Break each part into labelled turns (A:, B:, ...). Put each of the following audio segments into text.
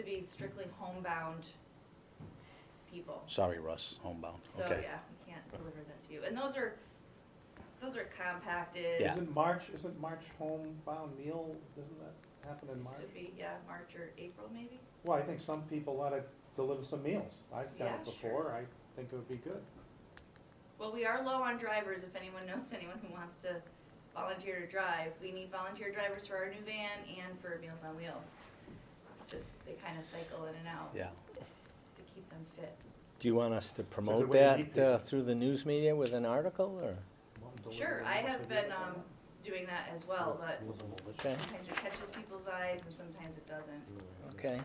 A: to be strictly homebound people.
B: Sorry, Russ, homebound,
A: So,
B: okay.
A: yeah, we can't deliver that to you. And those are, those are
B: Yeah.
A: compacted,
C: Isn't March, isn't March homebound meal, doesn't that happen in March?
A: should be, yeah, March or April maybe?
C: Well, I think some people ought to deliver some meals. I've done
A: Yeah,
C: it before, I think it would be good.
A: Well, we are low on drivers, if anyone knows anyone who wants to volunteer to drive. We need volunteer drivers for our new van and for Meals on Wheels. It's just, they kind of cycle in and out
B: Yeah,
A: to keep them fit.
D: Do you want us to promote
C: way to
D: that
C: meet
D: uh,
C: people.
D: through the news media with an article, or?
C: Well, deliver
A: Sure,
C: it
A: I
C: once
A: have
C: a
A: been,
C: year.
A: um, doing that as well, but
D: Okay,
A: sometimes it catches people's eyes and sometimes it doesn't.
D: okay.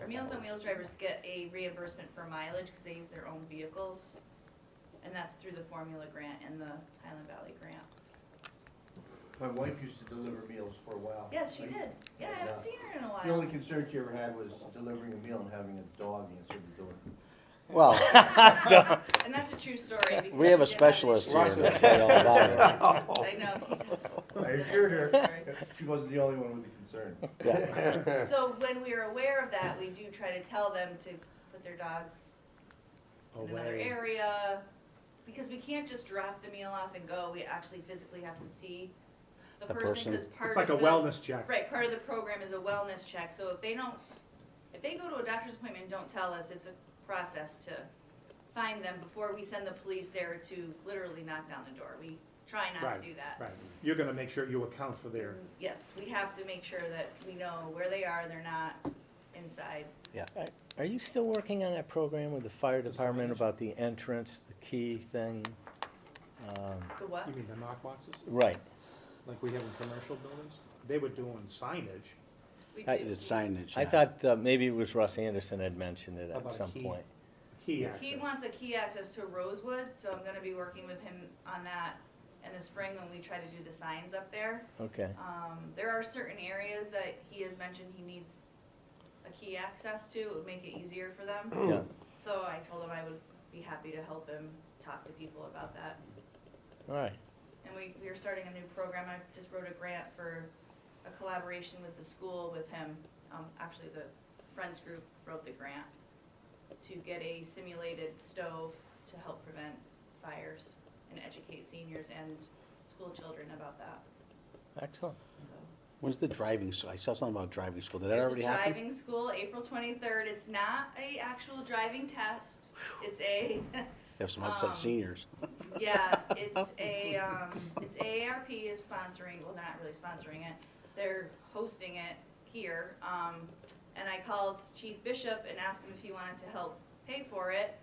A: Our Meals on Wheels drivers get a reimbursement for mileage because they use their own vehicles. And that's through the formula grant and the Highland Valley grant.
E: My wife used to deliver meals for a while.
A: Yes, she
E: Like,
A: did. Yeah, I haven't seen her in a
E: Oh, The only
A: while.
E: concern she ever had was delivering a meal and having a dog answer the door.
B: well,
A: And that's a true story. because
B: we have a
A: she did
B: specialist
A: issue.
B: here that's right all about it.
A: I know, he does.
E: I assured her,
A: Sorry.
E: she wasn't the only one with the concern.
B: Yeah,
A: So when we are aware of that, we do try to tell them to put their dogs in another
C: Away.
A: area, because we can't just drop the meal off and go, we actually physically have to see the
B: The
A: person,
B: person.
A: because part
C: It's
A: of
C: like a
A: the-
C: wellness check.
A: Right, part of the program is a wellness check, so if they don't, if they go to a doctor's appointment and don't tell us, it's a process to find them before we send the police there to literally knock down the door, we try not
C: Right,
A: to do that.
C: Right, you're gonna make sure you account for their,
A: Yes, we have to make sure that we know where they are, they're not inside.
D: Are you still working on that program with the fire department
C: signage?
D: about the entrance, the key thing? Um,
A: The what?
C: you mean the knock boxes,
D: Right,
C: like we have in commercial buildings? They were doing signage.
A: We
D: I-
A: do.
B: it's signage,
D: I
B: yeah.
D: thought uh, maybe it was Russ Anderson had mentioned it
C: About
D: at
C: a
D: some
C: key.
D: point.
C: Key access.
A: He wants a key access to Rosewood, so I'm gonna be working with him on that in the spring when we try to do the signs up there.
D: Okay,
A: Um, there are certain areas that he has mentioned he needs a key access to, it would make it easier for them.
D: yeah,
A: So I told him I would be happy to help him talk to people about that.
D: all right,
A: And we, we are starting a new program, I just wrote a grant for a collaboration with the school with him. Um, actually, the Friends Group wrote the grant to get a simulated stove to help prevent fires and educate seniors and school children about that,
D: excellent.
A: so.
B: When's the driving, s- I saw something about driving school, did that
A: There's a
B: already happen?
A: Driving school, April twenty-third, it's not a actual driving test, it's a,
B: Have some upset
A: um,
B: seniors.
A: yeah, it's a, um, it's AARP is sponsoring, well, they're not really sponsoring it, they're hosting it here, um, and I called Chief Bishop and asked him if he wanted to help pay for it,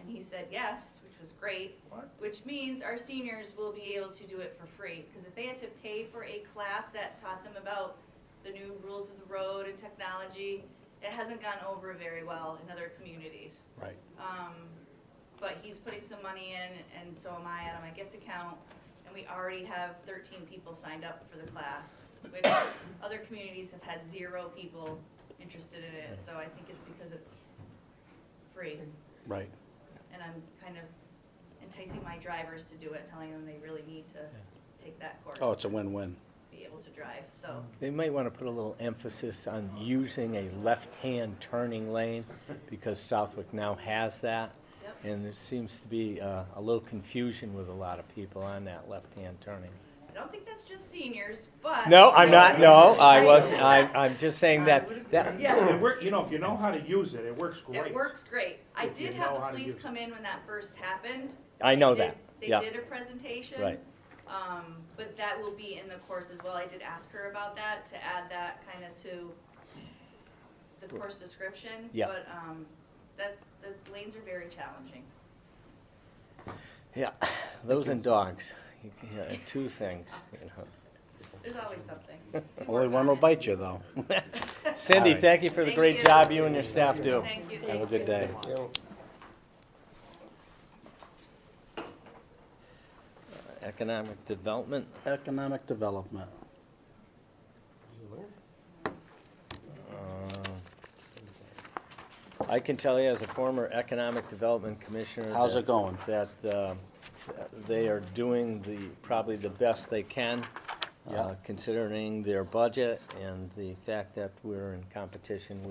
A: and he said yes, which was great.
E: What?
A: Which means our seniors will be able to do it for free, because if they had to pay for a class that taught them about the new rules of the road and technology, it hasn't gone over very well in other communities.
B: Right,
A: Um, but he's putting some money in, and so am I out of my gift account, and we already have thirteen people signed up for the class, which other communities have had zero people interested in it, so I think it's because it's free,
B: right.
A: and I'm kind of enticing my drivers to do it, telling them they really need to take that course.
B: Oh, it's a win-win.
A: to Be able to drive, so,
D: They might want to put a little emphasis on using a left-hand turning lane, because Southwick now has that.
A: yep.
D: And there seems to be uh, a little confusion with a lot of people on that left-hand turning.
A: I don't think that's just seniors, but.
D: No, I'm not, no, I wasn't, I, I'm just saying
A: I
D: that,
A: would
D: that,
A: Yeah.
C: It work, you know, if you know how to use it, it works great.
A: It works great. I
C: If you
A: did have
C: know
A: the
C: how to
A: police
C: use it.
A: come in when that first happened.
D: I
A: They
D: know
A: did-
D: that, yeah.
A: They did a presentation.
D: Right.
A: Um, but that will be in the course as well. I did ask her about that, to add that kind of to the course description.
D: Yeah.
A: But, um, that, the lanes are very challenging.
D: Yeah, those and dogs, You can- yeah, two things, you know.
A: There's always something. We
B: Only
A: work
B: one
A: on
B: will
A: it.
B: bite you, though.
D: Cindy,
B: All right.
D: thank you for the
A: Thank
D: great
A: you.
D: job you and your staff do.
A: Thank you.
B: Have a
A: thank you.
B: good day.
D: Economic development,
B: Economic development.
D: uh, I can tell you as a former economic development commissioner.
B: How's
D: that-
B: it going?
D: that uh, they are doing the, probably the best they can.
B: Yeah.
D: uh, considering their budget and the fact that we're in competition with